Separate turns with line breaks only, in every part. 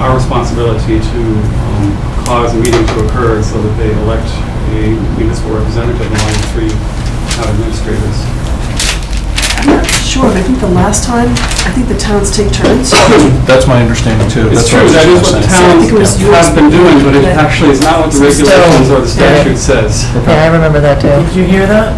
our responsibility to um, cause a meeting to occur so that they elect a municipal representative among the three town administrators.
I'm not sure, but I think the last time, I think the towns take turns.
That's my understanding too.
It's
That's what I
true,
was
that is
just
what the
gonna
town
say.
It was yours.
has been doing, but it
Yeah.
actually is not what the regulations or the statute says.
Yeah, I remember that
Did
too.
you hear that?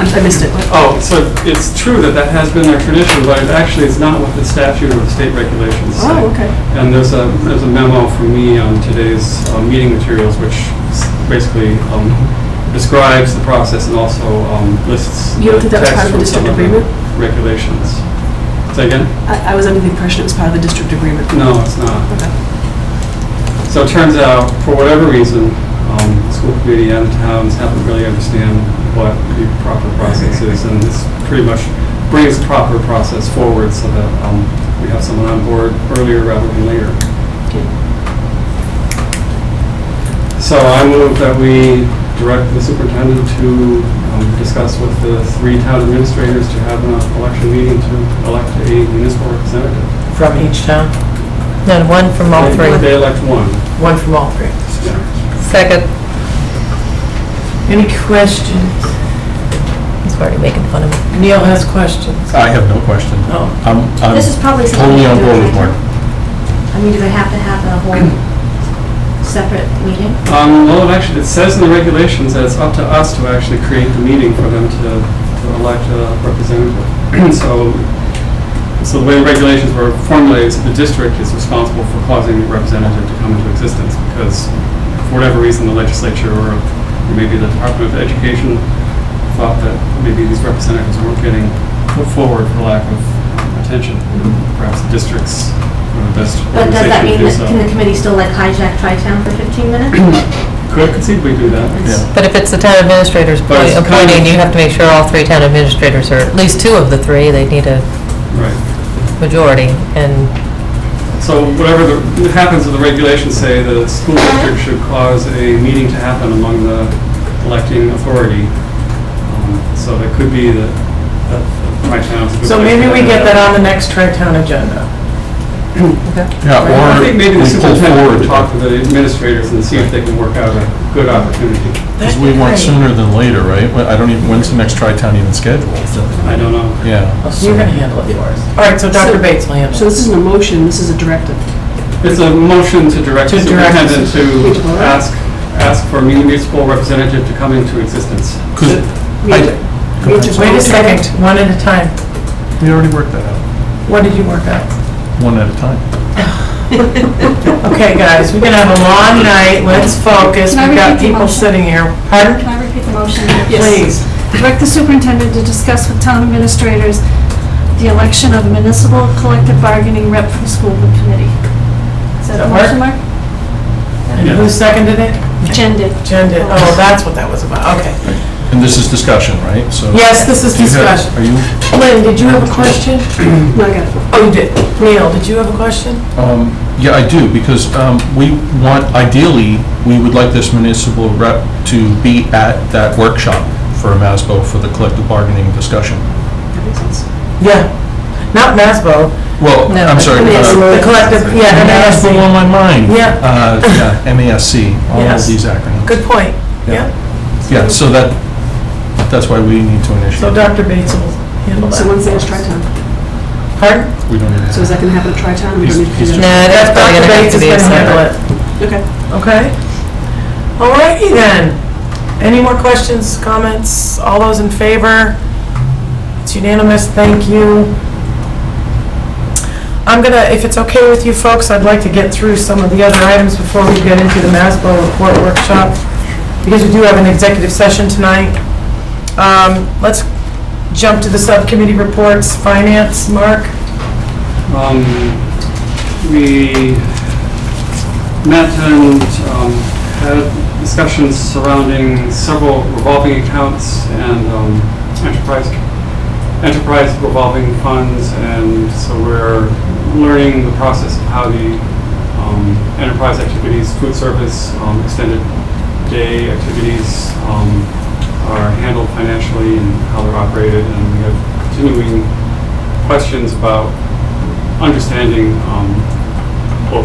I I missed it.
Oh, so it's true that that has been their tradition, but it actually is not what the statute or the state regulations say.
Oh, okay.
And there's a, there's a memo from me on today's uh, meeting materials, which s- basically um, describes the process and also um, lists
You don't think that was
text
part of the
from some
district
of the
agreement?
Regulations. Say again?
I I was under the impression it was part of the district agreement.
No, it's not.
Okay.
So it turns out, for whatever reason, um, the school committee and the towns haven't really understand what the proper process is, and this pretty much brings the proper process forward so that um, we have someone on board earlier rather than later. So I move that we direct the superintendent to um, discuss with the three town administrators to have an election meeting to elect a municipal representative.
From each town?
Then one from all
They- They
three.
elect one.
One from all three.
Yeah.
Second.
Any questions?
He's already making fun of me.
Neil has questions.
I have no question.
Oh.
I'm, I'm
This is probably something
totally
we
on
can do
board with
later.
Mark.
I mean, do they have to have a whole separate meeting?
Um, well, it actually, it says in the regulations that it's up to us to actually create the meeting for them to, to elect a representative. So, so the way the regulations were formulated, is the district is responsible for causing the representative to come into existence because for whatever reason, the legislature or maybe the Department of Education thought that maybe these representatives weren't getting put forward for lack of attention. Perhaps the districts were the best
But does
organization to
that mean
do
that,
so.
can the committee still like hijack Tri-Town for 15 minutes?
Could conceivably do that.
Yeah.
But if it's the town administrators
But it's kind of-
appointing, you have to make sure all three town administrators, or at least two of the three, they need a
Right.
majority, and
So whatever the, what happens with the regulations say, the school district should cause a meeting to happen among the electing authority. Um, So that could be that, that my town's. a good
So
place to
maybe we
have
get that on the next tri-town agenda.
Yeah,
I
or
think maybe
we
the
pull
superintendent can
forward,
talk to the administrators and see if they can work out a good opportunity.
because we want sooner than later, right? Well, I don't even, when's the next tri-town even scheduled?
I don't know.
Yeah.
Oh, So You're gonna handle it for us. All right, so Dr. Bates will handle
So
it.
this isn't a motion, this is a directive.
It's a motion to direct the
To direct the
superintendent to
superintendent.
ask, ask for a municipal representative to come into existence.
Could,
We have to- we have to vote
Wait a
on
second,
it.
one at a time.
we already worked that out,
What did you work out?
one at a time.
Okay, guys, we're gonna have a long night, let's focus.
Can I
We've got
repeat the
people
motion?
sitting here. Pardon?
Can I repeat the motion?
Please.
Direct the superintendent to discuss with town administrators the election of a municipal collective bargaining rep for the school committee. Is
that the motion,
Mark?
And who seconded it?
Jen did.
Jen did. Oh, that's what that was about, okay.
And this is discussion, right? So.
Yes, this is
Do you have-
discussion.
Are you,
Lynn, did you have a question?
No, I got it.
Oh, you did. Neil, did you have a question?
um, yeah, I do, because, um, we want, ideally, we would like this municipal rep to be at that workshop for MASBO for the collective bargaining discussion.
That makes sense.
Yeah. Not Masbo,
Well,
No,
I'm
but
sorry.
Yes,
uh,
the collective, yeah, and
That's
that's
the one on my mind.
Yeah.
Uh, Yeah, MASC, all of
Yes.
these acronyms.
Good point,
Yeah. Yeah,
yeah.
so that, that's why we need to initiate.
So Dr. Bates will handle that.
So when's the next tri-town?
Pardon?
We don't even
So is that
have.
going to happen at tri-town? We don't need to do
He's-
that.
he's-
no, that's probably
Dr.
gonna have
Bates
to
is
be a
gonna handle
separate.
it,
Okay.
okay? All righty then. Any more questions, comments? All those in favor? It's unanimous, thank you. I'm gonna, if it's okay with you folks, I'd like to get through some of the other items before we get into the Masbo report workshop, because we do have an executive session tonight. Um, Let's jump to the subcommittee reports, finance, Mark?
Um, We met and um, had discussions surrounding several revolving accounts and um, enterprise, enterprise revolving funds, and so we're learning the process of how the um, enterprise activities, food service, um, extended day activities um, are handled financially and how they're operated, and we have continuing questions about understanding um,